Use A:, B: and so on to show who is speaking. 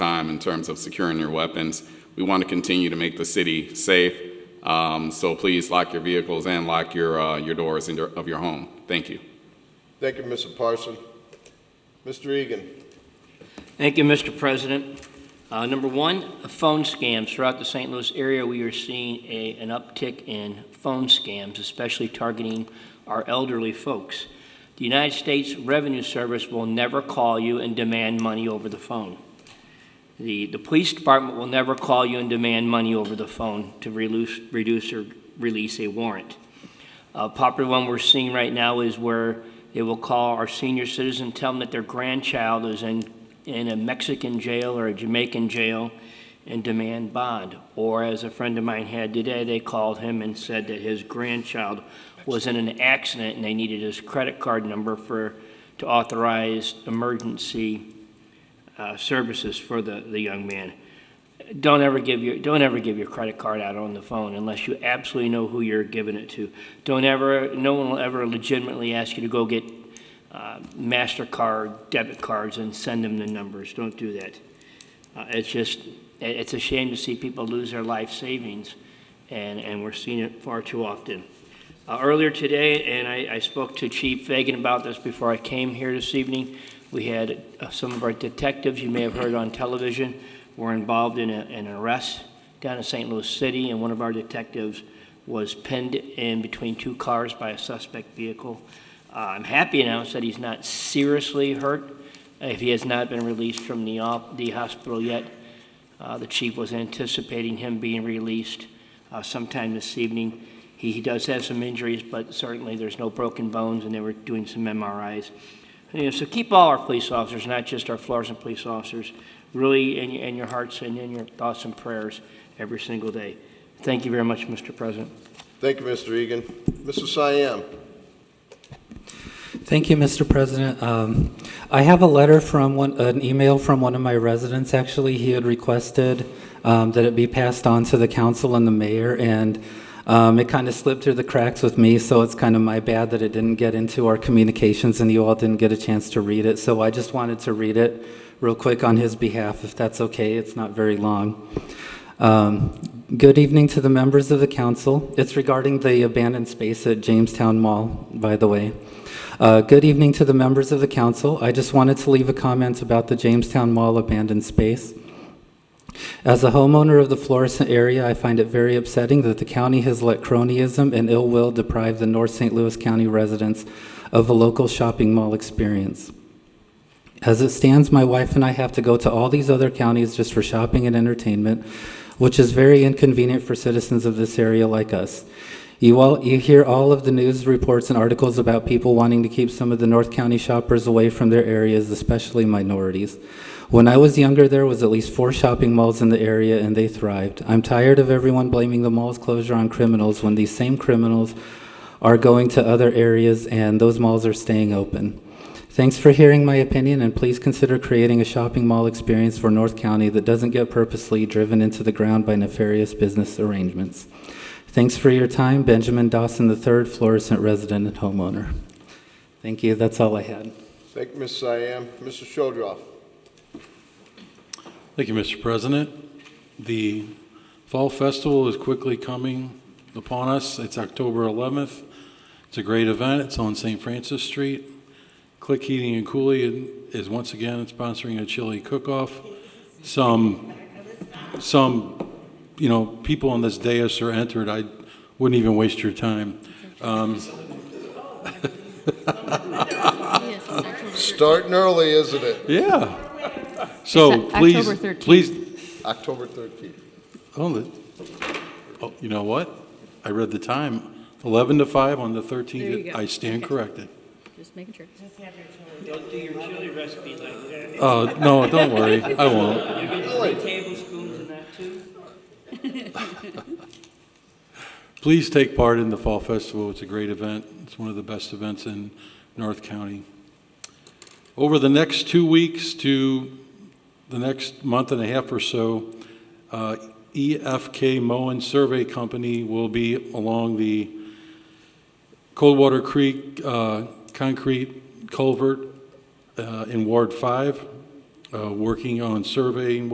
A: in terms of securing your weapons. We want to continue to make the city safe, um, so please lock your vehicles and lock your, uh, your doors in your- of your home. Thank you.
B: Thank you, Mr. Parson. Mr. Egan.
C: Thank you, Mr. President. Uh, Number one, phone scams. Throughout the St. Louis area, we are seeing a- an uptick in phone scams, especially targeting our elderly folks. The United States Revenue Service will never call you and demand money over the phone. The the police department will never call you and demand money over the phone to release- reduce or release a warrant. A popular one we're seeing right now is where they will call our senior citizen, tell them that their grandchild is in in a Mexican jail or a Jamaican jail and demand bond. Or as a friend of mine had today, they called him and said that his grandchild was in an accident and they needed his credit card number for, to authorize emergency uh, services for the, the young man. Don't ever give your, don't ever give your credit card out on the phone unless you absolutely know who you're giving it to. Don't ever, no one will ever legitimately ask you to go get uh, MasterCard debit cards and send them the numbers. Don't do that. Uh, It's just, i- it's a shame to see people lose their life savings, and, and we're seeing it far too often. Uh, Earlier today, and I, I spoke to Chief Fagan about this before I came here this evening, we had uh, some of our detectives, you may have heard on television, were involved in a- an arrest down in St. Louis City, and one of our detectives was pinned in between two cars by a suspect vehicle. Uh, I'm happy to announce that he's not seriously hurt, if he has not been released from the, op- the hospital yet. Uh, The chief was anticipating him being released uh, sometime this evening. He he does have some injuries, but certainly there's no broken bones, and they were doing some MRIs. You know, So keep all our police officers, not just our Florissant police officers, really in your- in your hearts and in your thoughts and prayers every single day. Thank you very much, Mr. President.
B: Thank you, Mr. Egan. Mr. Siam.
D: Thank you, Mr. President. Um, I have a letter from one, an email from one of my residents, actually. He had requested um, that it be passed on to the council and the mayor, and um, it kind of slipped through the cracks with me, so it's kind of my bad that it didn't get into our communications and you all didn't get a chance to read it. So I just wanted to read it real quick on his behalf, if that's okay. It's not very long. Um, Good evening to the members of the council. It's regarding the abandoned space at Jamestown Mall, by the way. Uh, Good evening to the members of the council. I just wanted to leave a comment about the Jamestown Mall abandoned space. As a homeowner of the Florissant area, I find it very upsetting that the county has let cronyism and ill will deprive the North St. Louis County residents of a local shopping mall experience. As it stands, my wife and I have to go to all these other counties just for shopping and entertainment, which is very inconvenient for citizens of this area like us. You all, you hear all of the news reports and articles about people wanting to keep some of the North County shoppers away from their areas, especially minorities. When I was younger, there was at least four shopping malls in the area, and they thrived. I'm tired of everyone blaming the mall's closure on criminals when these same criminals are going to other areas and those malls are staying open. Thanks for hearing my opinion, and please consider creating a shopping mall experience for North County that doesn't get purposely driven into the ground by nefarious business arrangements. Thanks for your time, Benjamin Dawson III, Florissant resident and homeowner. Thank you, that's all I had.
B: Thank you, Ms. Siam. Mr. Shodroff.
E: Thank you, Mr. President. The Fall Festival is quickly coming upon us. It's October 11th. It's a great event. It's on St. Francis Street. Click Heating and Cooling is once again sponsoring a chili cook-off. Some, some, you know, people on this dais are entered. I wouldn't even waste your time.
B: Starting early, isn't it?
E: Yeah. So
F: It's Oc-
E: please,
F: October 13th.
E: please,
B: October 13th.
E: Oh, the, oh, you know what? I read the time, 11 to 5 on the
F: There you
E: 13th.
F: go.
E: I stand
F: Okay.
E: corrected.
F: Just making sure.
C: Don't do your chili recipe like that.
E: Oh, no, don't worry, I won't.
C: You're getting three tablespoons in that, too?
E: Please take part in the Fall Festival. It's a great event. It's one of the best events in North County. Over the next two weeks to the next month and a half or so, uh, EFK Moen Survey Company will be along the Coldwater Creek uh, concrete culvert uh, in Ward 5, uh, working on surveying